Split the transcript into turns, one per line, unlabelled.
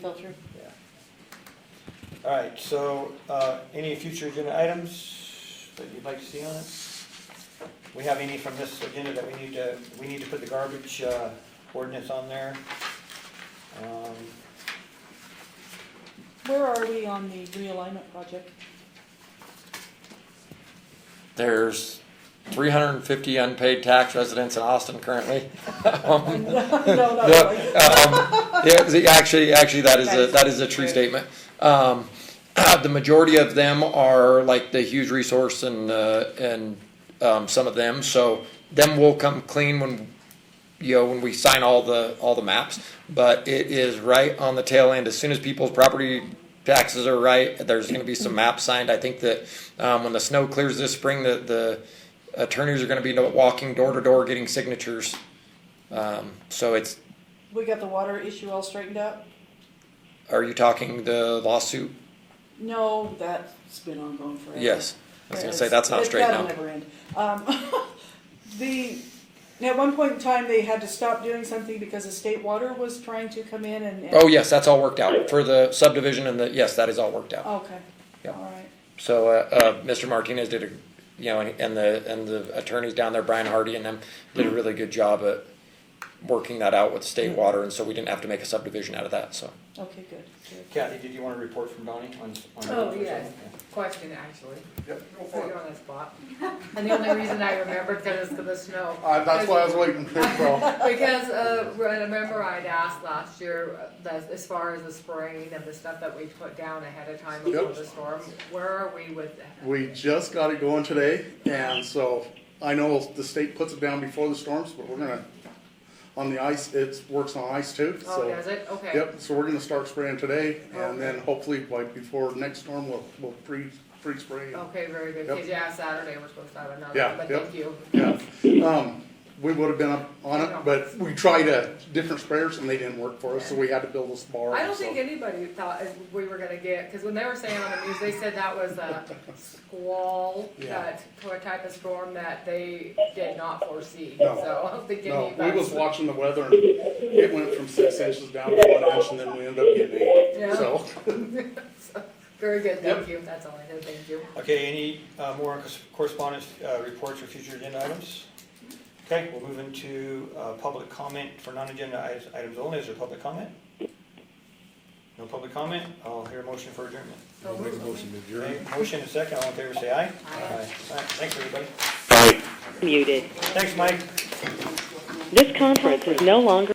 Filter?
All right, so, uh, any future agenda items that you'd like to see on it? We have any from this agenda that we need to, we need to put the garbage, uh, ordinance on there? Um,
Where are we on the realignment project?
There's three hundred and fifty unpaid tax residents in Austin currently. Um,
No, no,
the,
no.
um, yeah, the- actually, actually, that is a, that is a true statement. Um, the majority of them are like the huge resource and, uh, and, um, some of them, so them will come clean when, you know, when we sign all the, all the maps. But it is right on the tail end, as soon as people's property taxes are right, there's gonna be some maps signed. I think that, um, when the snow clears this spring, the, the attorneys are gonna be walking door to door getting signatures. Um, so it's,
We got the water issue all straightened out?
Are you talking the lawsuit?
No, that's been ongoing forever.
Yes. I was gonna say, that's not straight
That'll
now.
never end. Um, The, at one point in time, they had to stop doing something because the state water was trying to come in and. and-
Oh, yes, that's all worked out for the subdivision and the, yes, that is all worked out.
Okay,
Yeah.
all right.
So, uh, uh, Mr. Martinez did a, you know, and and the, and the attorneys down there, Brian Hardy and them, did a really good job at working that out with state water, and so we didn't have to make a subdivision out of that, so.
Okay, good, good.
Kathy, did you want a report from Donnie on? on-
Oh, yes. Question, actually.
Yep, go
Put
for
you
it.
on the spot. And the only reason I remembered because it's gonna snow.
Uh, that's why I was waiting for so.
Because, uh, remember I'd asked last year, uh, that as far as the spraying and the stuff that we put down ahead of time before
Yep.
the storm, where are we with that?
We just got it going today, and so I know the state puts it down before the storms, but we're gonna, on the ice, it works on ice too,
Oh,
so.
does it? Okay. Oh,
Yep, so we're gonna start spraying today,
Okay.
and then hopefully like before next storm, we'll, we'll pre, pre-spray.
Okay, very good.
Yep.
Cause yeah, Saturday we're supposed to have another,
Yeah,
but
yep.
thank you.
Yeah, um, we would've been up on it, but we tried a different sprayers and they didn't work for us, so we had to build this bar.
I don't
so-
think anybody thought if we were gonna get, cause when they were saying on the news, they said that was a squall,
Yeah.
that t- type of storm that they did not foresee, so
No.
I don't think
No, we
anybody.
was watching the weather and it went from six inches down to one inch and then we ended up getting eight,
Yeah.
so.
Very good,
Yep.
thank you, that's all I had, thank you.
Okay, any, uh, more cors- correspondence, uh, reports or future agenda items? Okay, we'll move into, uh, public comment for non-agenda items- items only. Is there public comment? No public comment? I'll hear a motion for adjournment.
So moved.
Okay, Motion and second, all in favor, say aye.
Aye.
All right, Thanks, everybody.
Muted.
Thanks, Mike.
This conference is no longer.